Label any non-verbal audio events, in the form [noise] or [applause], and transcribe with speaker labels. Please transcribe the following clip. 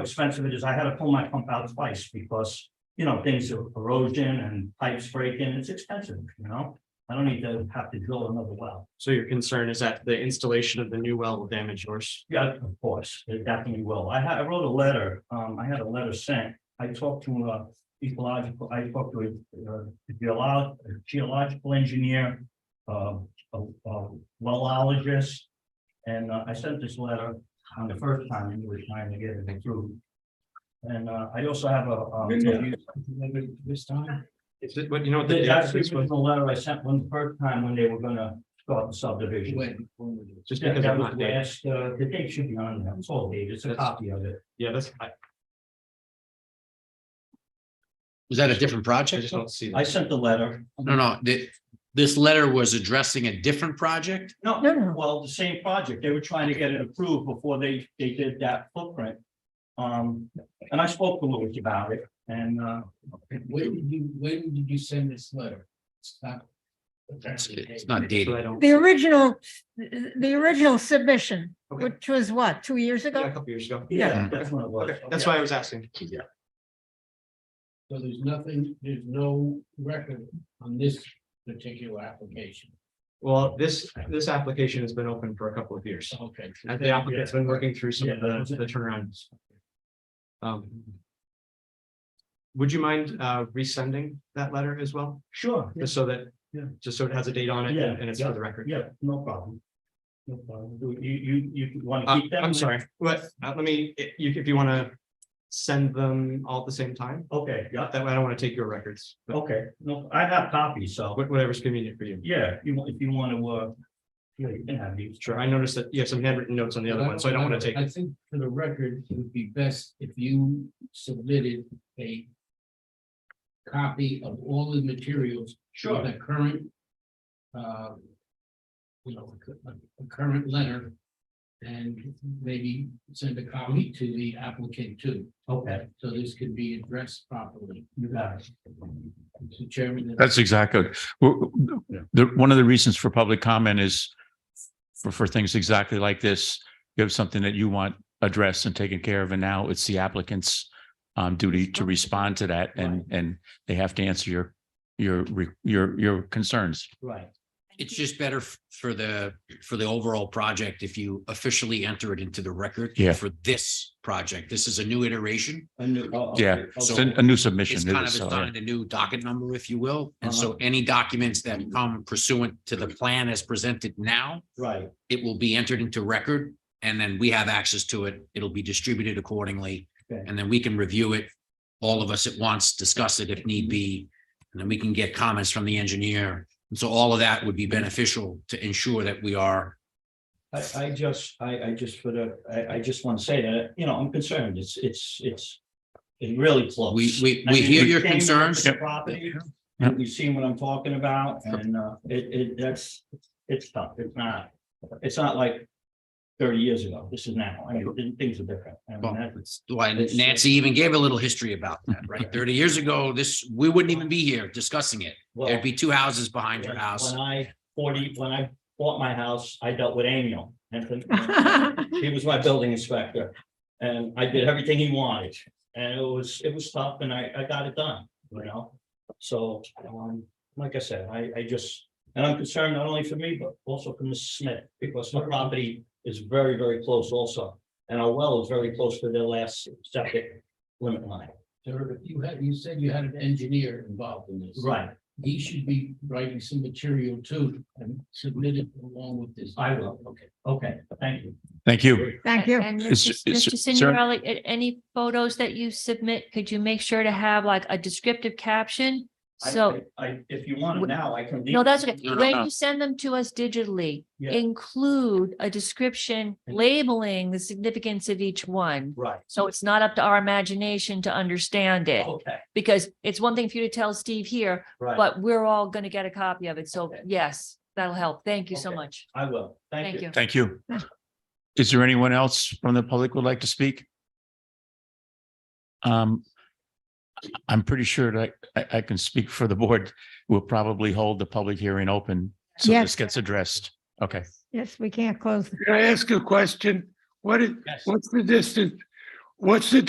Speaker 1: expensive it is. I had to pull my pump out twice because, you know, things are erosion and pipes breaking. It's expensive, you know? I don't need to have to drill another well.
Speaker 2: So your concern is that the installation of the new well will damage yours?
Speaker 1: Yeah, of course, it definitely will. I had, I wrote a letter. Um, I had a letter sent. I talked to uh ecological, I talked to a uh, geolo- geological engineer, uh, a, a wellologist. And uh, I sent this letter on the first time and he was trying to get it through. And uh, I also have a, um, a
Speaker 2: This time? Is it, what, you know what the
Speaker 1: They
Speaker 2: date of
Speaker 1: actually,
Speaker 2: this was?
Speaker 1: was the letter I sent one the first time when they were gonna start the subdivision.
Speaker 2: Just
Speaker 1: That
Speaker 2: because
Speaker 1: that
Speaker 2: I'm
Speaker 1: was
Speaker 2: not there.
Speaker 1: last, uh, the date should be on there, it's all dated, it's a
Speaker 2: That's-
Speaker 1: copy of it.
Speaker 2: Yeah, that's, I,
Speaker 3: Was that a different
Speaker 2: I
Speaker 3: project?
Speaker 2: just don't see
Speaker 1: I
Speaker 2: that.
Speaker 1: sent the letter.
Speaker 3: No, no, thi- this letter was addressing a different project?
Speaker 1: No,
Speaker 4: No, no.
Speaker 1: well, the same project, they were trying to get it approved before they, they did that footprint. Um, and I spoke to Louis about it, and, uh,
Speaker 5: When did you, when did you send this letter? It's not.
Speaker 3: It's it's not dated.
Speaker 2: So I don't-
Speaker 4: The original, the original submission,
Speaker 2: Okay.
Speaker 4: which was what, two years
Speaker 2: Yeah, A
Speaker 4: ago?
Speaker 2: couple years ago.
Speaker 1: yeah, that's what it was.
Speaker 2: Okay, that's why I was asking.
Speaker 5: So there's nothing, there's no record on this particular application.
Speaker 2: Well, this, this application has been open for a couple of years.
Speaker 5: Okay.
Speaker 2: And the applicant's been working through some of
Speaker 1: Yeah.
Speaker 2: the, the turnarounds. Um. Would you mind, uh, resending that letter as well,
Speaker 1: Sure,
Speaker 2: just so that,
Speaker 1: Yeah.
Speaker 2: just so it has a date on it
Speaker 1: Yeah,
Speaker 2: and and it's for the record?
Speaker 1: yeah, no problem. No problem, Do you, you, you want
Speaker 2: Uh,
Speaker 1: to keep that?
Speaker 2: I'm sorry, what, uh, let me, i- you, if you want to send them all at the same time,
Speaker 1: Okay, yeah,
Speaker 2: that way I don't want to take your records, but
Speaker 1: okay, no, I have copies, so,
Speaker 2: wha- whatever's convenient for you.
Speaker 1: yeah, if you, want- if you want to, uh, yeah, you can have these.
Speaker 2: Sure, I noticed that you have some handwritten notes on the other one, so I don't want to
Speaker 5: I
Speaker 2: take,
Speaker 5: think for the record, it would be best if you submitted a. Copy of all the materials. with The current. uh, You know, a a current letter. And maybe send a copy to the applicant too,
Speaker 1: Okay,
Speaker 5: so this could be addressed properly.
Speaker 1: you got it.
Speaker 5: Mr. Chairman. and-
Speaker 6: That's exactly, w- w- the, one of the reasons for public comment is for, for things exactly like this, you have something that you want addressed and taken care of, and now it's the applicant's um, duty to respond to that, and, and they have to answer your, your, re- your, your concerns.
Speaker 1: Right,
Speaker 3: It's just better f- for the, for the overall project if you officially enter it into the record.
Speaker 6: Yeah.
Speaker 3: For this project, this is a new iteration.
Speaker 1: I knew- oh, okay,
Speaker 6: Yeah,
Speaker 3: So-
Speaker 6: It's a a new Uh-huh.
Speaker 3: It's
Speaker 6: submission. it
Speaker 3: kind of
Speaker 6: is, so, yeah.
Speaker 3: assigned a new docket number, if you will. And so any documents that come pursuant to the plan as presented now,
Speaker 1: Right,
Speaker 3: it will be entered into record. And then we have access to it. It'll be distributed accordingly.
Speaker 1: Okay.
Speaker 3: And then we can review it, all of us at once, discuss it if need be. And then we can get comments from the engineer. And so all of that would be beneficial to ensure that we are
Speaker 1: I, I just, I, I just for the, I, I just want to say that, you know, I'm concerned, it's, it's, it's, it's really close.
Speaker 3: We- we-
Speaker 1: I
Speaker 3: we
Speaker 1: mean,
Speaker 3: hear your
Speaker 1: came into
Speaker 3: concerns.
Speaker 1: the Property, and we've seen what I'm talking about, and, uh, it, it, that's, it's tough, it's not, it's not like thirty years ago, this is now, I mean, things are different. I mean,
Speaker 3: Well,
Speaker 1: that-
Speaker 3: that's Why Nancy even gave a little history about that, right? Thirty years ago, this, we wouldn't even be here discussing it.
Speaker 1: well,
Speaker 3: There'd be two houses behind
Speaker 1: When
Speaker 3: your house.
Speaker 1: when I forty, when I bought my house, I dealt with Amiel. and
Speaker 7: [laughs]
Speaker 1: He was my building inspector. And I did everything he wanted. And it was, it was tough and I, I got it done, you know? So, um, like I said, I, I just, and I'm concerned not only for me, but also for Mrs. Smith, because her property is very, very close also. And our well is very close to their last septic limit line.
Speaker 5: Sir, if you had, you said you had an engineer involved in this.
Speaker 1: Right,
Speaker 5: He should be writing some material too and submit it along with this.
Speaker 1: I will, okay, okay, thank you.
Speaker 6: Thank you.
Speaker 4: Thank you.
Speaker 7: And
Speaker 6: Is-
Speaker 7: Mr.
Speaker 6: is-
Speaker 7: Mr.
Speaker 6: is there-
Speaker 7: Signorelli, a- any photos that you submit, could you make sure to have like a descriptive caption?
Speaker 1: I-
Speaker 7: So,
Speaker 1: I, I- if you want it now, I can. leave
Speaker 7: no,
Speaker 1: it.
Speaker 7: that's okay.
Speaker 3: No, no,
Speaker 7: When
Speaker 6: no.
Speaker 7: you send them to us digitally,
Speaker 1: Yeah.
Speaker 7: include a description labeling the significance of each one.
Speaker 1: Right,
Speaker 7: So it's not up to our imagination to understand it,
Speaker 1: okay,
Speaker 7: because it's one thing for you to tell Steve here,
Speaker 1: Oh. right.
Speaker 7: but we're all going to get a copy of it. So
Speaker 1: Okay.
Speaker 7: yes, that'll help. Thank you so
Speaker 1: Okay.
Speaker 7: much.
Speaker 1: I will, thank
Speaker 7: Thank
Speaker 1: you.
Speaker 7: you.
Speaker 6: Thank you. Is there anyone else from the public would like to speak? Um, I'm pretty sure that I, I can speak for the board. We'll probably hold the public hearing open. So
Speaker 4: Yes.
Speaker 6: this gets addressed. Okay.
Speaker 4: Yes, we can't close the
Speaker 8: Can I ask a question? What is,
Speaker 1: Yes.
Speaker 8: what's the distance? What's the